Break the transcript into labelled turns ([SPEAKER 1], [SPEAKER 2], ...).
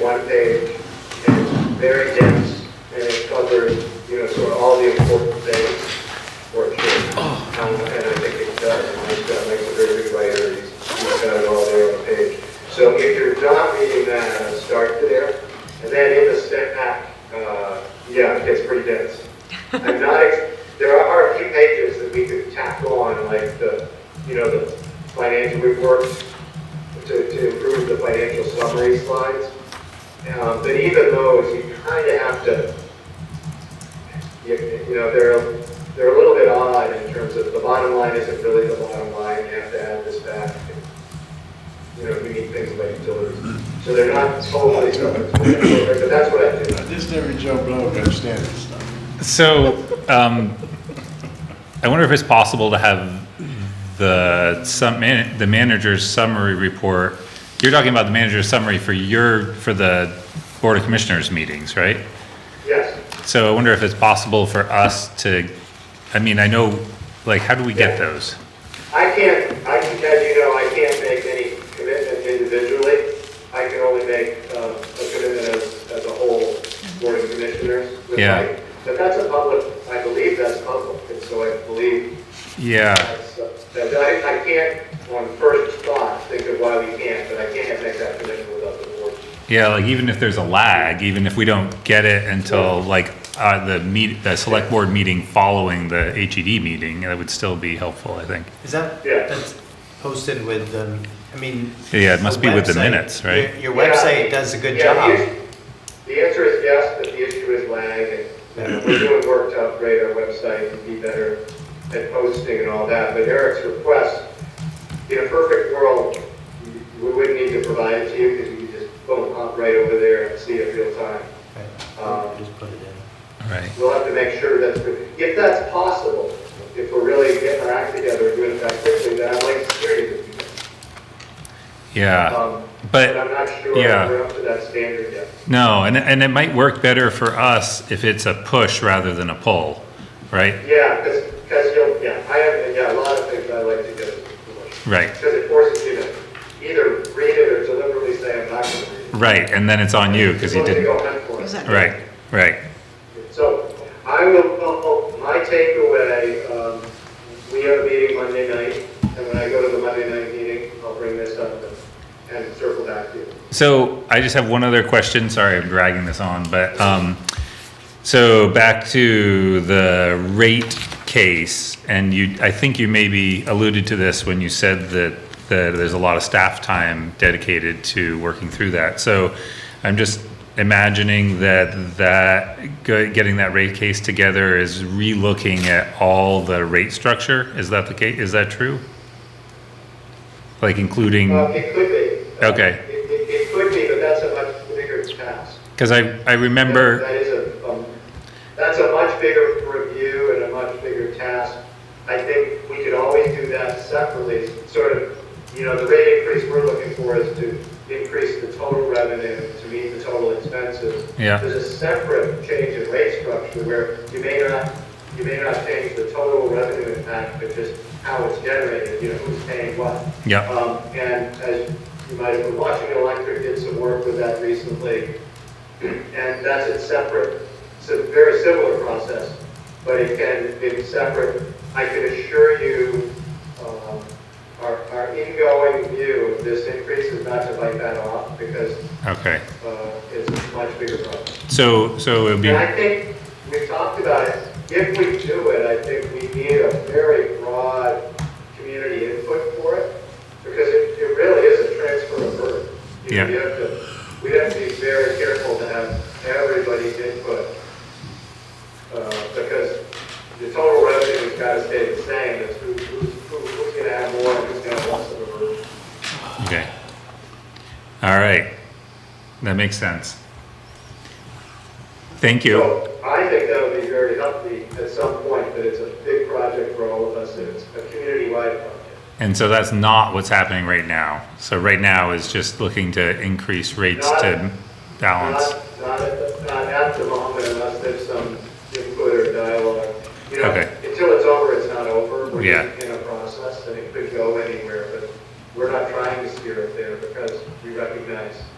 [SPEAKER 1] one page, and it's very dense, and it covers, you know, sort of all the important things for sure. Um, And I think it does, and this guy makes a very good writer, he's he's got it all there on the page. So if you're not reading that, uh, start there, and then in the step back, uh, yeah, it gets pretty dense. I'm not, ex- there are a few pages that we could tackle on, like the, you know, the financial reports, to, to improve the financial summary slides. Um, but even those, you kind of have to, you, you know, they're, they're a little bit odd in terms of the bottom line isn't really the bottom line, you have to add this back. You know, we need things like utilities, so they're not totally, perfect, but that's what I do.
[SPEAKER 2] This every Joe Blow understands this stuff.
[SPEAKER 3] So, um, I wonder if it's possible to have the some, man- the manager's summary report. You're talking about the manager's summary for your, for the Board of Commissioners meetings, right?
[SPEAKER 1] Yes,
[SPEAKER 3] So I wonder if it's possible for us to, I mean, I know, like, how do we get those?
[SPEAKER 1] I can't, I can, as you know, I can't make any commitment individually. I can only make uh, a commitment as, as a whole board of commissioners. with
[SPEAKER 3] Yeah.
[SPEAKER 1] my- But that's a public, I believe that's public, and so I believe
[SPEAKER 3] Yeah,
[SPEAKER 1] that's, uh, that I, I can't on first thought think of why we can't, but I can't make that commitment without the board.
[SPEAKER 3] yeah, like even if there's a lag, even if we don't get it until like, uh, the meet, the select board meeting following the HED meeting, that would still be helpful, I think.
[SPEAKER 4] Is that,
[SPEAKER 1] Yeah.
[SPEAKER 4] that's posted with the, I mean.
[SPEAKER 3] Yeah, it must be with the
[SPEAKER 4] website-
[SPEAKER 3] minutes, right?
[SPEAKER 4] your- Your
[SPEAKER 1] Yeah.
[SPEAKER 4] website does a good
[SPEAKER 1] Yeah, Um, the
[SPEAKER 4] job.
[SPEAKER 1] issue- The answer is yes, but the issue is lag, and- and we're doing work to upgrade our website and be better at posting and all that, but Eric's request, in a perfect world, we wouldn't need to provide it to you, because you could just boom, hop right over there and see it real time.
[SPEAKER 4] Right. Just put it in.
[SPEAKER 3] Right.
[SPEAKER 1] We'll have to make sure that's, if that's possible, if we're really getting our act together and doing it that quickly, then I'd like to hear you.
[SPEAKER 3] Yeah,
[SPEAKER 1] Um, But I'm
[SPEAKER 3] Uh, but,
[SPEAKER 1] not sure
[SPEAKER 3] yeah.
[SPEAKER 1] we're up to that standard yet.
[SPEAKER 3] no, and, and it might work better for us if it's a push rather than a pull, right?
[SPEAKER 1] Yeah, because, because you'll, yeah, I have, yeah, a lot of things I like to get,
[SPEAKER 3] Right,
[SPEAKER 1] because it forces you to either read it or deliberately say, I'm not going to read it.
[SPEAKER 3] right, and then it's on you, because you
[SPEAKER 1] Unless
[SPEAKER 3] didn't,
[SPEAKER 1] go hunt for it.
[SPEAKER 5] Exactly.
[SPEAKER 3] right, right,
[SPEAKER 1] So I will, oh, oh, my takeaway, um, we have a meeting Monday night, and when I go to the Monday night meeting, I'll bring this up and- and circle back to you.
[SPEAKER 3] So I just have one other question. Sorry, I'm dragging this on, but, um, so back to the rate case, and you, I think you maybe alluded to this when you said that, that there's a lot of staff time dedicated to working through that. So I'm just imagining that, that, go- getting that rate case together is relooking at all the rate structure. Is that the case? Is that true? Like including?
[SPEAKER 1] Uh, it could be. Uh,
[SPEAKER 3] Okay.
[SPEAKER 1] It, it, it could be, but that's a much bigger task.
[SPEAKER 3] Because I, I remember,
[SPEAKER 1] That is a, um, that's a much bigger review and a much bigger task. I think we could always do that separately, sort of, you know, the rate increase we're looking for is to increase the total revenue to meet the total expenses.
[SPEAKER 3] Yeah.
[SPEAKER 1] There's a separate change in rate structure where you may not, you may not change the total revenue impact, but just how it's generated, you know, who's paying what.
[SPEAKER 3] Yeah.
[SPEAKER 1] Um, and as you might have been watching, Electric did some work with that recently. And that's a separate, it's a very similar process, but it can be separate. I can assure you, um, our, our ingoing view of this increase is not to bite that off because,
[SPEAKER 3] okay,
[SPEAKER 1] uh, it's a much bigger problem.
[SPEAKER 3] so, so it'd be,
[SPEAKER 1] And I think, we talked about it, if we do it, I think we need a very broad community input for it, because it, it really is a transfer of burden. You know,
[SPEAKER 3] Yeah.
[SPEAKER 1] You have to, we have to be very careful to have everybody's input, uh, because the total revenue has got to stay the same, it's who, who's, who- who's gonna have more, and who's gonna have less of a burden.
[SPEAKER 3] okay. All right, that makes sense. Thank you.
[SPEAKER 1] So I think that would be very healthy at some point, but it's a big project for all of us, and it's a community-wide project.
[SPEAKER 3] And so that's not what's happening right now. So right now is just looking to increase rates to balance.
[SPEAKER 1] Not, not at, not at the moment unless there's some input or dialogue. You know,
[SPEAKER 3] Okay.
[SPEAKER 1] until it's over, it's not over. We're
[SPEAKER 3] Yeah.
[SPEAKER 1] in a process and it could go anywhere, but we're not trying to steer it there because we recognize